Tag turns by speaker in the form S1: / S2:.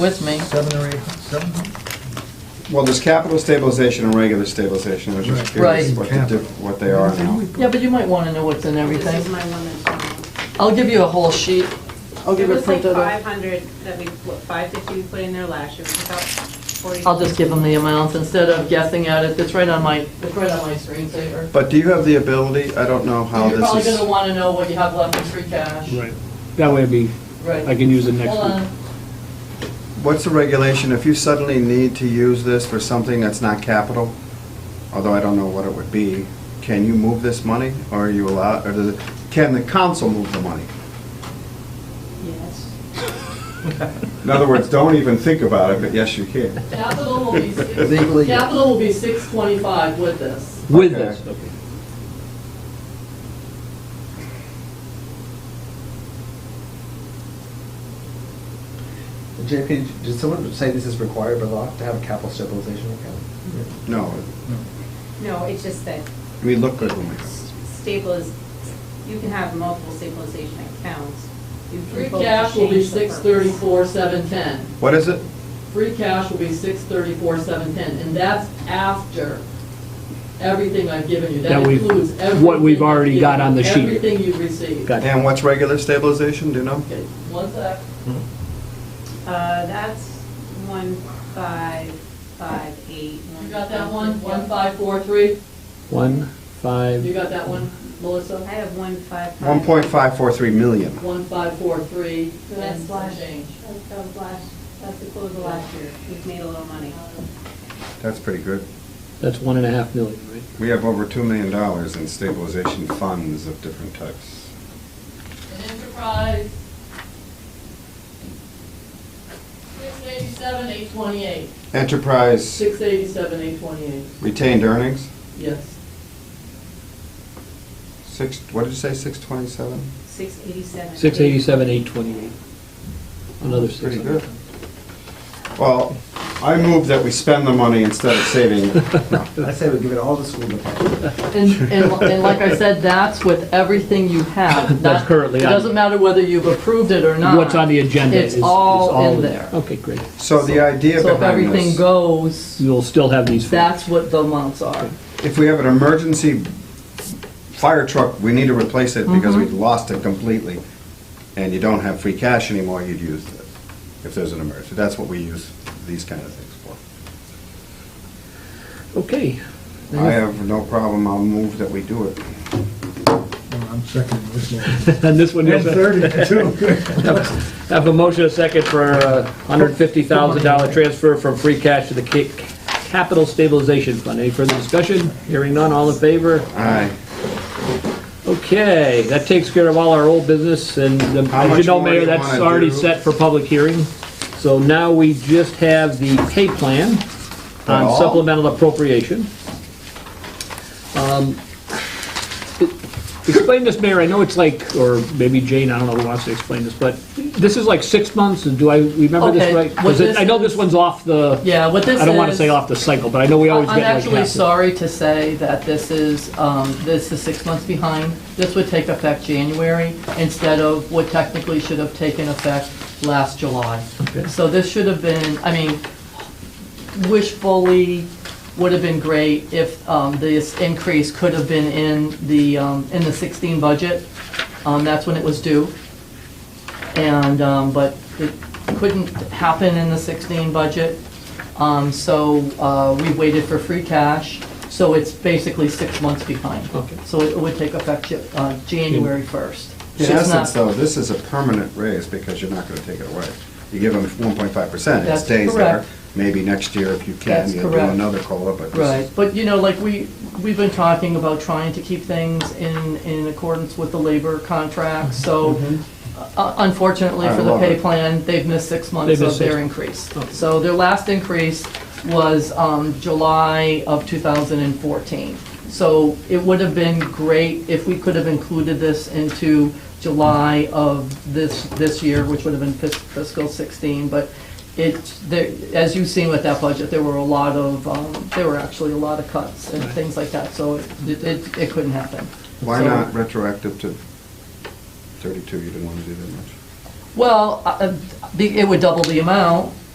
S1: with me.
S2: Seven or eight, seven?
S3: Well, there's capital stabilization and regular stabilization, I was just curious
S1: Right.
S3: what the diff- what they are now.
S1: Yeah, but you might want to know what's in
S4: This is
S1: everything.
S4: my one
S1: I'll give you a whole sheet. I'll
S4: that, it
S1: give it
S4: was like
S1: printed
S4: five
S1: out.
S4: hundred that we, what, five fifty we put in there last year, it's about forty.
S1: I'll just give them the amounts instead of guessing at it. It's right on my, it's right on my screensaver.
S3: But do you have the ability, I don't know how
S1: You're probably
S3: this
S1: going to
S3: is,
S1: want to know what you have left in free cash.
S5: Right. That way it'd be,
S1: Right.
S5: I can use it next
S1: Hold
S5: week.
S1: on.
S3: what's the regulation, if you suddenly need to use this for something that's not capital, although I don't know what it would be, can you move this money, or are you allowed, or does it, can the council move the money?
S4: Yes.
S3: In other words, don't even think about it, but yes, you can.
S1: Capital will be, six-
S2: Legally, yes.
S1: capital will be 625 with this.
S5: With
S3: Okay.
S5: this, okay.
S6: JP, did someone say this is required by law to have a capital stabilization account?
S3: No,
S4: No, it's just that
S3: we look good when we go.
S4: s- staple is, you can have multiple stabilization accounts. You can
S1: Free
S4: vote to
S1: cash will be
S4: change the purpose.
S1: 634, 710.
S3: What is it?
S1: Free cash will be six thirty-four, seven ten, and that's after everything I've given you. That
S5: That we've-
S1: includes everything.
S5: what we've already
S1: I've
S5: got
S1: given
S5: on the
S1: you,
S5: sheet.
S1: Everything you've received.
S5: Got it.
S3: And what's regular stabilization, do you know?
S1: Okay, one sec.
S4: Uh, that's one five, five, eight.
S1: You got that one, one five four three?
S5: One,
S1: You
S5: five,
S1: got that one,
S4: I
S1: Melissa?
S4: have one five. five-
S3: 1.543 million.
S1: One five four three, and
S4: That's
S1: some
S4: last,
S1: change.
S4: that's the last, that's the close of last year, we've made a little money.
S3: That's pretty good.
S5: that's one and a half million, right?
S3: We have over $2 million in stabilization funds of different types.
S1: And enterprise. Six eighty-seven, eight twenty-eight.
S3: Enterprise
S1: Six eighty-seven, eight twenty-eight,
S3: retained earnings,
S1: yes.
S3: six, what did you say, 627?
S4: Six eighty-seven.
S5: Six eighty-seven, eight twenty-eight. Another six.
S3: Pretty good. Well, I move that we spend the money instead of saving it. No.
S6: I say we give it all to school department.
S1: And, and, and like I said, that's with everything you have.
S5: That's
S1: not-
S5: currently
S1: It
S5: on.
S1: doesn't matter whether you've approved it or not.
S5: What's on the agenda is.
S1: It's
S5: is
S1: all in there.
S5: Okay, great.
S3: So the idea
S1: So if
S3: behind
S1: everything
S3: this,
S1: goes,
S5: You'll still have these. four.
S1: that's what the amounts are.
S3: if we have an emergency fire truck, we need to replace it because
S1: Mm-hmm.
S3: we lost it completely, and you don't have free cash anymore, you'd use it if there's an emergency. That's what we use these kind of things for.
S5: Okay.
S3: I have no problem, I'll move that we do it.
S2: Well, I'm seconding this one.
S5: And this one,
S2: And
S5: you'll
S2: thirty, too.
S5: have a motion, a second for a hundred and fifty thousand dollar transfer from free cash to the ca- capital stabilization fund. Any further discussion? Hearing none, all in favor?
S3: Aye.
S5: Okay, that takes care of all our old business, and the-
S3: How
S5: as you
S3: much
S5: know,
S3: more do
S5: Mayor,
S3: you
S5: that's
S3: wanna
S5: already
S3: do?
S5: set for public hearing. So now we just have the pay plan on
S3: Well.
S5: supplemental appropriation. Um, Explain this, Mayor, I know it's like, or maybe Jane, I don't know who wants to explain this, but this is like six months, and do I remember
S1: Okay,
S5: this right?
S1: what
S5: 'Cause it- I know
S1: this
S5: this one's off the,
S1: Yeah, what this is.
S5: I don't want to say off the cycle, but I know we always get
S1: I'm
S5: like half.
S1: actually
S5: the-
S1: sorry to say that this is, um, this is six months behind. This would take effect January instead of what technically should have taken effect last July.
S5: Okay.
S1: So this should have been, I mean, wishfully would have been great if um, this increase could have been in the, um, in the 16 budget. Um, That's when it was due. And, um, but it couldn't happen in the 16 budget. Um, So uh, we waited for free cash, so it's basically six months behind.
S5: Okay.
S1: So it would take effect uh, January 1st.
S3: In
S1: So it's not-
S3: essence, though, this is a permanent raise because you're not going to take it away. You give them 1.5%, it
S1: That's
S3: stays there.
S1: correct.
S3: Maybe next year, if you can,
S1: That's
S3: you'll do
S1: correct.
S3: another COLA, but
S1: Right,
S3: this is...
S1: but you know, like we, we've been talking about trying to keep things in, in accordance with the labor contract, so uh, unfortunately
S3: I
S1: for the
S3: love
S1: pay
S3: it.
S1: plan, they've missed six months
S5: They've
S1: of
S5: missed
S1: their
S5: six-
S1: increase.
S5: Okay.
S1: So their last increase was um, July of 2014. So it would have been great if we could have included this into July of this, this year, which would have been fis- fiscal 16, but it, there- as you've seen with that budget, there were a lot of, um, there were actually a lot of cuts and things like that, so it, it it couldn't happen.
S3: Why
S1: So-
S3: not retroactive to 32? You didn't want to do that much.
S1: Well, uh, uh, the- it would double the amount,